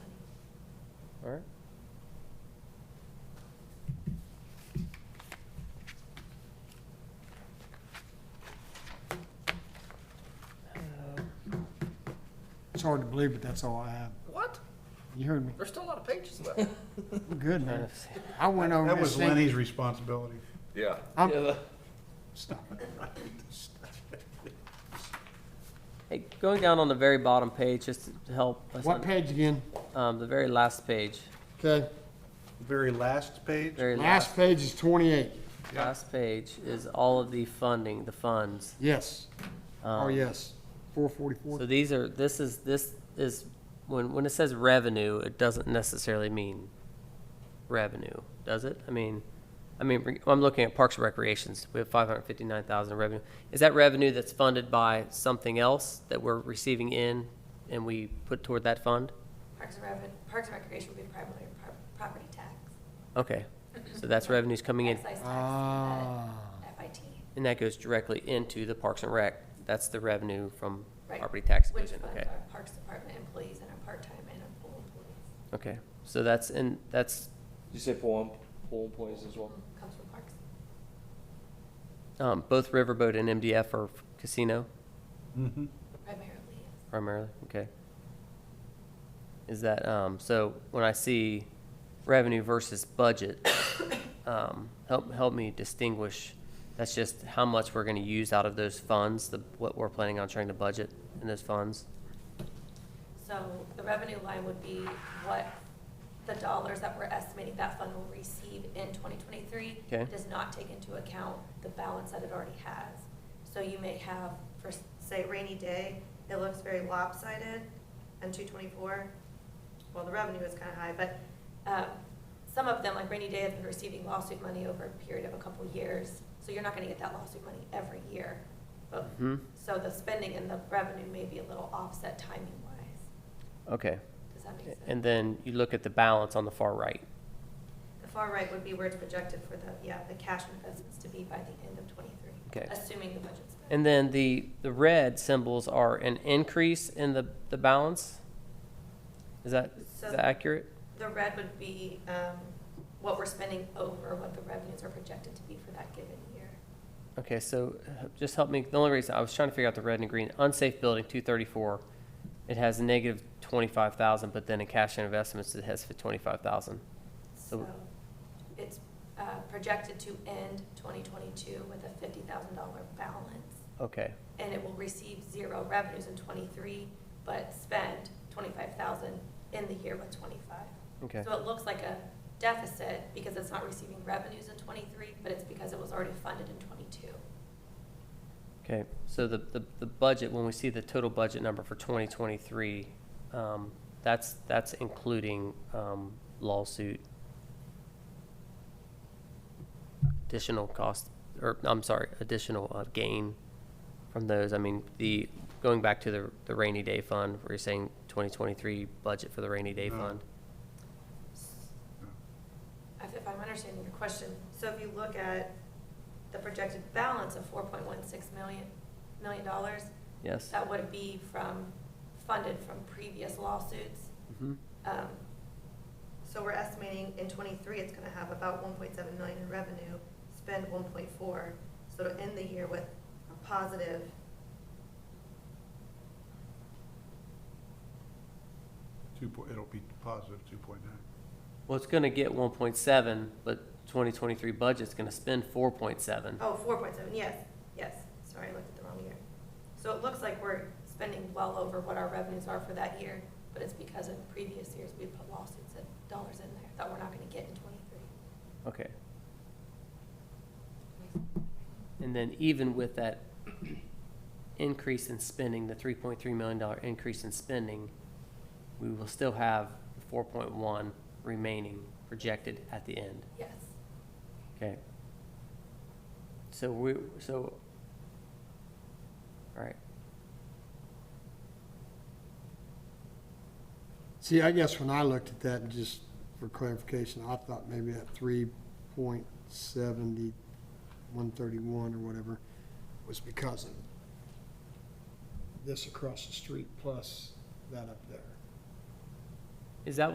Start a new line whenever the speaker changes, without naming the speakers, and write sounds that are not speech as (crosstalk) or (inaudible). All right.
It's hard to believe, but that's all I have.
What?
You heard me.
There's still a lot of pages left.
I'm good,
Trying
man.
to see.
I went over
That
this
was
thing.
Lenny's responsibility.
Yeah.
I'm-
Yeah, the-
Stop it.
Hey, going down on the very bottom page, just to help us,
What
un-
page again?
um, the very last page,
Okay,
Very last page?
very last,
last page is twenty-eight.
Yeah.
last page is all of the funding, the funds.
Yes, oh,
Um,
yes, four
So
forty-four.
these are, this is, this is, when, when it says revenue, it doesn't necessarily mean revenue, does it? I mean, I mean, re- I'm looking at Parks and Recreations, we have five hundred fifty-nine thousand revenue. Is that revenue that's funded by something else that we're receiving in and we put toward that fund?
Parks and Reven, Parks and Recreation would be primarily pro- property tax.
Okay, so that's revenues coming in,
Excise tax, uh,
Ah,
FIT.
and that goes directly into the Parks and Rec. That's the revenue from
right,
property tax
which
division,
funds
okay?
our Parks Department employees and our part-time and our full employees.
Okay, so that's, and that's,
You say pool, em- pool employees as well?
Comes from Parks.
um, both Riverboat and MDF are casino?
Mhm.
Primarily, yes.
Primarily, okay. Is that, um, so when I see revenue versus budget, (coughs) um, help, help me distinguish, that's just how much we're gonna use out of those funds, the, what we're planning on trying to budget in those funds?
So the revenue line would be what the dollars that we're estimating that fund will receive in twenty twenty-three.
Okay.
Does not take into account the balance that it already has. So you may have, for s- say rainy day, it looks very lopsided on two twenty-four. Well, the revenue is kind of high, but, um, some of them, like rainy day, have been receiving lawsuit money over a period of a couple years. So you're not gonna get that lawsuit money every year. But,
Hmm,
so the spending and the revenue may be a little offset timing wise.
okay.
Does that make sense?
And then you look at the balance on the far right.
The far right would be where it's projected for the, yeah, the cash investments to be by the end of twenty-three.
Okay.
Assuming the budget's. met.
And then the, the red symbols are an increase in the, the balance? Is that, is
So-
that accurate?
The red would be, um, what we're spending over what the revenues are projected to be for that given year.
Okay, so uh, just help me, the only reason, I was trying to figure out the red and green, unsafe building, two thirty-four. It has a negative twenty-five thousand, but then in cash and investments, it has for twenty-five thousand. So-
So it's, uh, projected to end twenty twenty-two with a fifty thousand dollar balance.
Okay,
And it will receive zero revenues in twenty-three, but spend twenty-five thousand in the year with twenty-five.
okay,
So it looks like a deficit because it's not receiving revenues in twenty-three, but it's because it was already funded in twenty-two.
okay. So the, the, the budget, when we see the total budget number for twenty twenty-three, um, that's, that's including, um, lawsuit. Additional cost, or, I'm sorry, additional uh, gain from those? I mean, the, going back to the, the rainy day fund, where you're saying twenty twenty-three budget for the rainy day
No.
fund?
If if I'm understanding your question, so if you look at the projected balance of four point one six million, million dollars,
Yes?
that would be from, funded from previous lawsuits.
Mhm.
Um, So we're estimating in twenty-three, it's gonna have about one point seven million in revenue, spend one point four, so to end the year with a positive.
Two point, it'll be positive two point nine.
Well, it's gonna get one point seven, but twenty twenty-three budget's gonna spend four point seven.
Oh, four point seven, yes, yes, sorry, I looked at the wrong year. So it looks like we're spending well over what our revenues are for that year, but it's because in previous years, we put lawsuits and dollars in there that we're not gonna get in twenty-three.
Okay. And then even with that increase in spending, the three point three million dollar increase in spending, we will still have four point one remaining projected at the end.
Yes,
Okay. So we, so, all right,
See, I guess when I looked at that, and just for clarification, I thought maybe that three point seventy, one thirty-one or whatever was because of this across the street plus that up there.
is that